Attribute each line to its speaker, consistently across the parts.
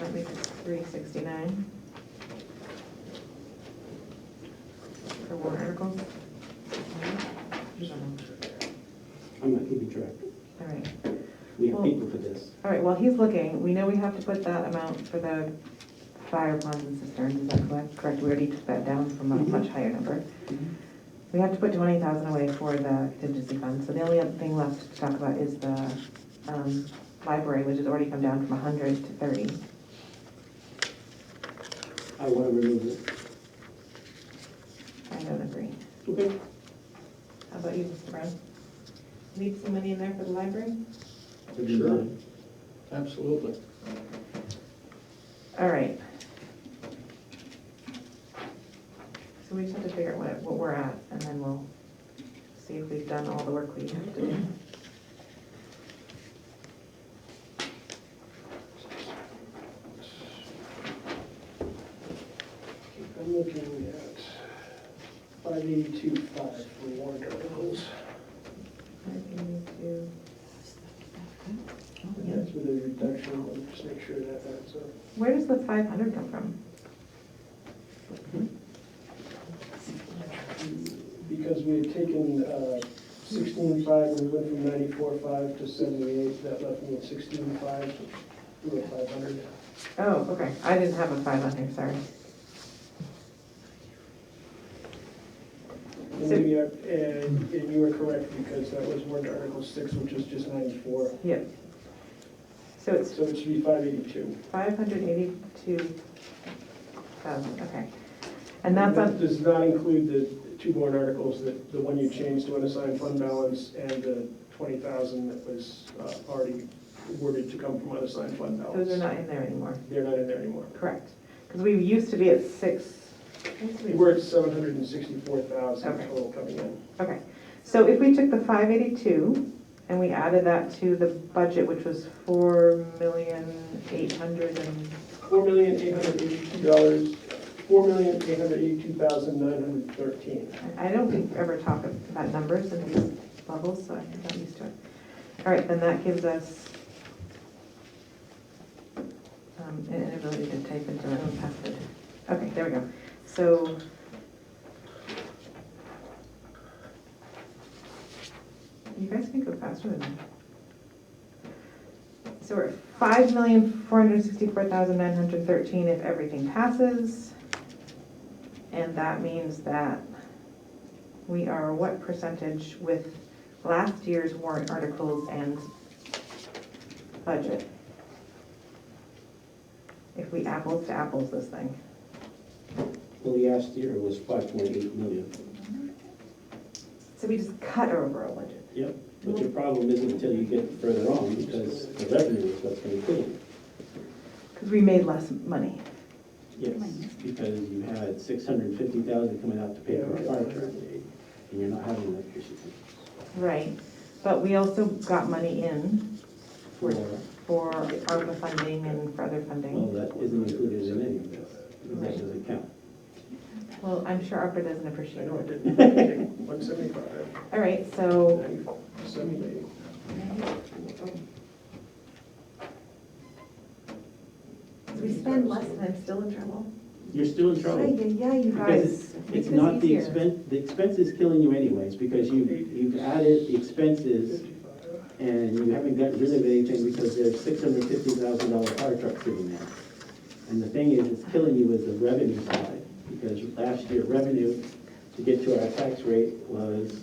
Speaker 1: I believe it's three sixty-nine. For warrant articles.
Speaker 2: I'm not keeping track.
Speaker 1: All right,
Speaker 2: We have
Speaker 1: Well-
Speaker 2: people for this.
Speaker 1: all right, while he's looking, we know we have to put that amount for the fire ponds and cisterns, is that correct? Correct, we already took that down from a much higher number. We have to put twenty thousand away for the contingency fund, so the only other thing left to talk about is the, um, library, which has already come down from hundred to thirty.
Speaker 2: I want to remove it.
Speaker 1: I don't agree.
Speaker 2: Okay.
Speaker 1: How about you, Mr. Brown? Leave some money in there for the library?
Speaker 2: That'd be
Speaker 3: Sure.
Speaker 2: fine.
Speaker 3: Absolutely.
Speaker 1: All right. So we just have to figure out what, what we're at, and then we'll see if we've done all the work we have to do.
Speaker 3: I'm looking at five eighty-two five for warrant articles. That's with a reduction, I'll just make sure that that's up.
Speaker 1: Where does the five hundred come from?
Speaker 3: Because we had taken uh, sixteen five, we went from ninety-four five to seventy-eight, that left me at sixteen five, we were five hundred.
Speaker 1: Oh, okay, I didn't have a five on here, sorry.
Speaker 3: And maybe I- and and you were correct, because that was warrant article six, which is just ninety-four.
Speaker 1: Yep. So it's
Speaker 3: So it should be five eighty-two.
Speaker 1: five hundred eighty-two thousand, okay. And that's
Speaker 3: That
Speaker 1: on,
Speaker 3: Does not include the two warrant articles, that, the one you changed to unassigned fund balance and the twenty thousand that was uh, already awarded to come from unassigned fund balance.
Speaker 1: those are not in there anymore,
Speaker 3: They're not in there anymore.
Speaker 1: correct? Because we used to be at six, what used to
Speaker 3: We
Speaker 1: be?
Speaker 3: were at seven hundred and sixty-four thousand
Speaker 1: Okay.
Speaker 3: total coming in.
Speaker 1: Okay, so if we took the five eighty-two and we added that to the budget, which was four million eight hundred and,
Speaker 3: Four million, eight hundred eighty-two dollars, four million, eight hundred eighty-two thousand, nine hundred thirteen.
Speaker 1: I I don't think we ever talk about numbers in these levels, so I'm not used to it. All right, then that gives us um, an inability to type into our own password. Okay, there we go. So. You guys can go faster than me. So we're at five million, four hundred sixty-four thousand, nine hundred thirteen if everything passes. And that means that we are what percentage with last year's warrant articles and budget? If we apples to apples this thing.
Speaker 2: Well, the last year was five point eight million.
Speaker 1: So we just cut our overall budget.
Speaker 2: Yep. But your problem isn't until you get further on, because the revenue is what's going to kill you.
Speaker 1: Because we made less money.
Speaker 2: Yes, because you had six hundred and fifty thousand coming out to pay for a fire truck, and you're not having that issue.
Speaker 1: Right. But we also got money in
Speaker 2: Well,
Speaker 1: for ARPA funding and for other funding.
Speaker 2: that isn't included in any of this, that doesn't count.
Speaker 1: Well, I'm sure ARPA doesn't
Speaker 3: I
Speaker 1: appreciate
Speaker 3: know I
Speaker 1: it.
Speaker 3: did, one seventy-five,
Speaker 1: All right, so
Speaker 3: seventy-eight.
Speaker 1: we spend less and I'm still in trouble.
Speaker 2: You're still in trouble.
Speaker 1: Yeah, you
Speaker 2: Because
Speaker 1: guys.
Speaker 2: It's
Speaker 1: Make this
Speaker 2: not the
Speaker 1: easier.
Speaker 2: expense, the expense is killing you anyways, because you, you've added the expenses and you haven't gotten rid of anything because there's six hundred fifty thousand dollar fire truck sitting there. And the thing is, it's killing you with the revenue side, because last year revenue to get to our tax rate was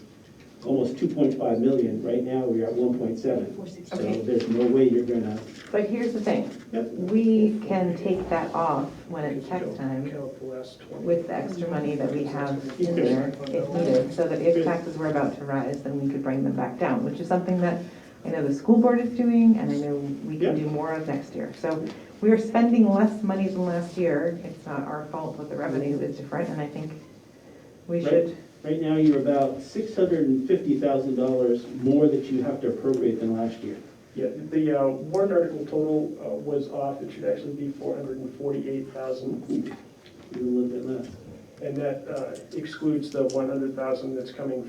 Speaker 2: almost two point five million, right now we're at one point seven. So
Speaker 1: Okay.
Speaker 2: there's no way you're gonna,
Speaker 1: But here's the thing,
Speaker 2: yep,
Speaker 1: we can take that off when it's tax time
Speaker 3: Count the last 20.
Speaker 1: with the extra money that we have in there if needed, so that if taxes were about to rise, then we could bring them back down, which is something that I know the school board is doing, and I know we can do more of next year. So we are spending less money than last year, it's not our fault that the revenue is different, and I think we
Speaker 2: Right.
Speaker 1: should,
Speaker 2: right now you're about six hundred and fifty thousand dollars more that you have to appropriate than last year.
Speaker 3: Yeah, the uh, warrant article total uh, was off, it should actually be four hundred and forty-eight thousand,
Speaker 2: You're a little bit less.
Speaker 3: and that uh, excludes the one hundred thousand that's coming